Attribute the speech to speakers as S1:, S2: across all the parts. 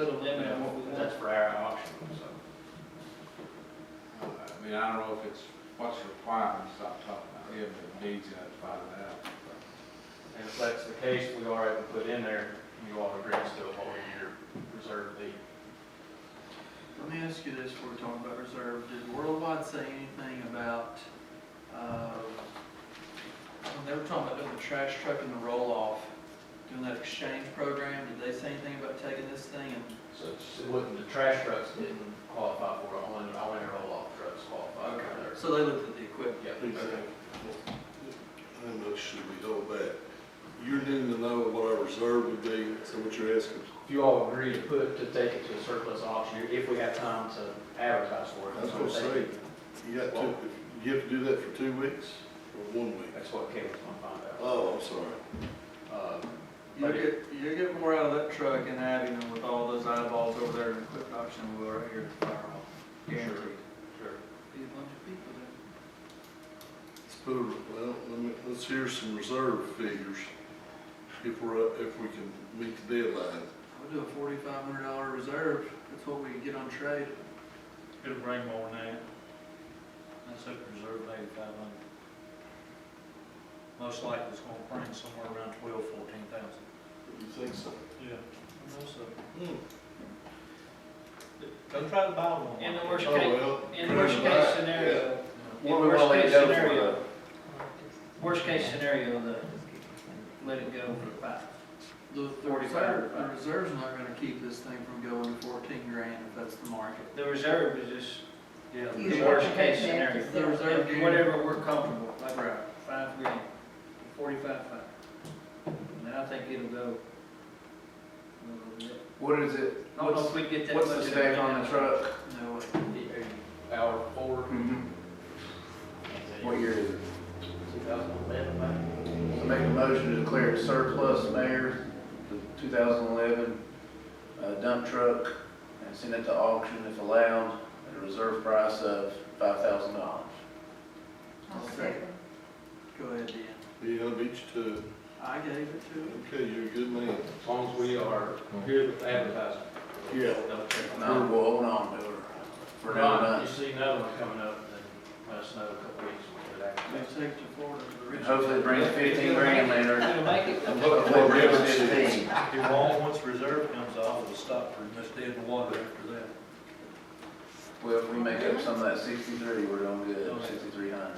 S1: Little
S2: Yeah,
S1: limit on what we
S2: but that's
S1: want.
S2: for our auction, so.
S3: I mean, I don't know if it's what's required, stop talking about him, but needs to find out.
S2: And if that's the case, we are able to put in there, you all agree to a whole year reserve fee.
S1: Let me ask you this, before we're talking about reserve, did Worldwide say anything about, uh, when they were talking about doing the trash truck and the roll-off, doing that exchange program, did they say anything about taking this thing and,
S2: So it's- it wouldn't, the trash trucks didn't qualify for it, only, only our roll-off trucks qualified for their.
S1: uh, so they looked at the equipment?
S2: Yeah.
S4: Exactly. I don't know, should we hold back? You're needing to know what our reserve would be, so what you're asking.
S2: If you all agree to put, to take it to a surplus auction, if we have time to advertise for it.
S4: I was gonna say, you got two, you have to do that for two weeks or one week?
S2: That's what Kevin's gonna find
S4: Oh, I'm sorry.
S2: out. Uh,
S1: You get, you get more out of that truck in Abbey than with all those eyeballs over there in equipment auction than we will right here at the fire hall. Guaranteed.
S2: Sure.
S1: Be a bunch of people there.
S4: Let's put, a- well, let me, let's hear some reserve figures, if we're, up- if we can meet the deadline.
S1: We'll do a forty-five hundred dollar reserve, that's what we get on trade.
S5: It'll bring more than that. That's at reserve eighty-five hundred. Most likely it's gonna bring somewhere around twelve, fourteen thousand.
S4: You think so?
S5: Yeah. I know so.
S4: Hmm.
S5: Go try to buy one.
S6: In the worst
S4: Oh,
S6: case,
S4: well.
S6: in the worst case scenario, in
S2: What we wanna
S6: worst
S2: let
S6: case
S2: go for
S6: scenario, worst case scenario, the, let it go for five.
S1: The, the
S2: 45.
S1: reserve, the reserve's not gonna keep this thing from going to fourteen grand if that's the market.
S6: The reserve is just
S5: Yeah.
S7: You
S6: the
S7: have
S6: worst
S7: to
S6: case
S7: take that to
S1: The
S6: scenario.
S1: reserve
S6: If
S1: game.
S6: Whatever we're comfortable, like
S1: Right.
S6: five grand, forty-five, five. And I think it'll go. a little bit.
S2: What is it,
S6: I don't know
S2: what's,
S6: if we'd get that much.
S2: what's the
S6: of
S2: spec
S6: it
S2: on
S6: down.
S2: the truck?
S1: No way.
S2: Hour four?
S1: Mm-hmm.
S2: What year is it?
S6: 2011, I think.
S2: I make a motion to declare it surplus, Mayor, the 2011 uh, dump truck, and send it to auction if allowed, at a reserve price of $5,000.
S7: I'll
S1: Okay.
S7: second.
S1: Go ahead, Dan.
S4: Yeah, I beat you to, it.
S1: I gave it to him.
S4: okay, you're a good man.
S2: As long as we are good with advertising.
S4: Yeah.
S2: No, we'll hold on to it for another
S6: You
S2: month.
S6: see another one coming up, then let us know a couple weeks when we're back.
S1: They take it to Florida to the
S2: And
S1: rich.
S2: Hopefully it brings 15 grand later.
S6: It'll make it.
S2: Hopefully it brings 15.
S5: If all, once reserve comes off, it'll stop pretty much dead in the water after that.
S2: Well, if we make up some of that 63, we're doing good, 6,300.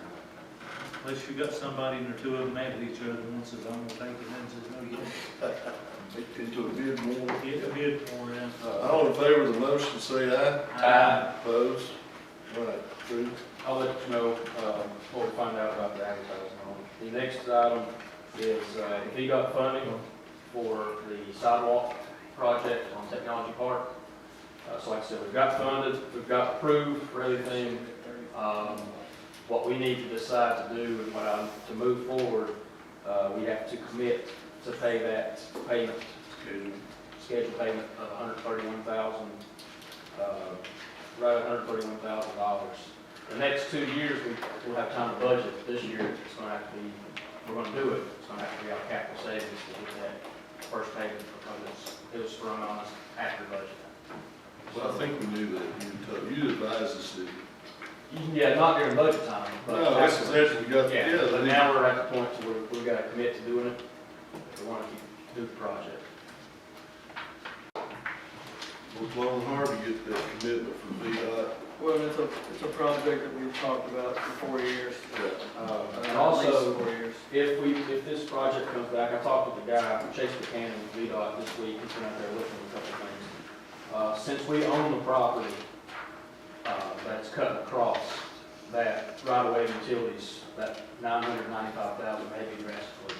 S5: Unless you got somebody in there, two of them mad at each other, and one says, I'm gonna take it, and one says,
S4: Into a bid more.
S5: no, you get a bid for it.
S4: All in favor of the motion, say aye.
S2: Aye.
S4: Opposed? Right, approved.
S2: Uh, I'll let you know, um, what we find out about the advertising on it. The next item is, uh, if he got funding for the sidewalk project on Technology Park. Uh, so like I said, we've got funded, we've got approved for everything. Um, what we need to decide to do and what I'm, to move forward, uh, we have to commit to pay that payment, scheduled payment of hundred thirty-one thousand, uh, right, hundred thirty-one thousand dollars. The next two years, we, we'll have time to budget. This year, it's gonna have to be, we're gonna do it. It's gonna have to be out of capital savings to get that first payment because it's, it was thrown on us after budget.
S4: Well, I think we knew that, you told, you advised us that.
S2: Yeah, not during budget time, but.
S4: No, this is
S2: after-
S4: actually got
S2: Yeah, but
S4: together.
S2: now we're at the point to where we've got to commit to doing it, if we want to keep, do the project.
S4: We're long hard to get that commitment from VDOT.
S1: Well, it's a, it's a project that we've talked about for four years.
S4: Yeah.
S2: Uh,
S1: uh,
S2: And
S1: at least
S2: also,
S1: Four years.
S2: if we, if this project comes back, I talked with the guy, Chase Buchanan, with VDOT this week, he's been out there looking at a couple things. Uh, Since we own the property, uh, that's cut across that right-of-way utilities, that nine hundred ninety-five thousand may be drastically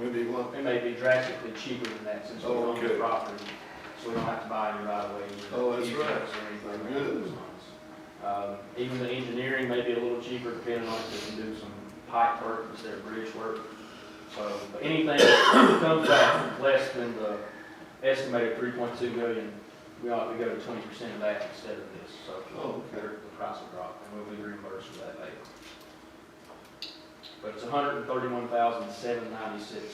S4: Wendy, what?
S2: It may be drastically cheaper than that since we
S4: Oh,
S2: own the
S4: okay.
S2: property, so we don't have to buy any right away.
S4: Oh, that's right.
S2: Or anything.
S4: Good.
S2: along those lines. Um, even the engineering may be a little cheaper depending on if they can do some pipe work instead of bridge work. So, but anything that comes out less than the estimated three point two million, we ought to go to twenty percent of that instead of this, so.
S4: Oh, okay.
S2: The price will drop and we'll be reimbursed for that later. But it's 131,796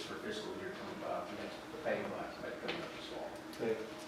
S2: for fiscal year 25, and that's the payment I expect coming up this fall.
S4: Okay.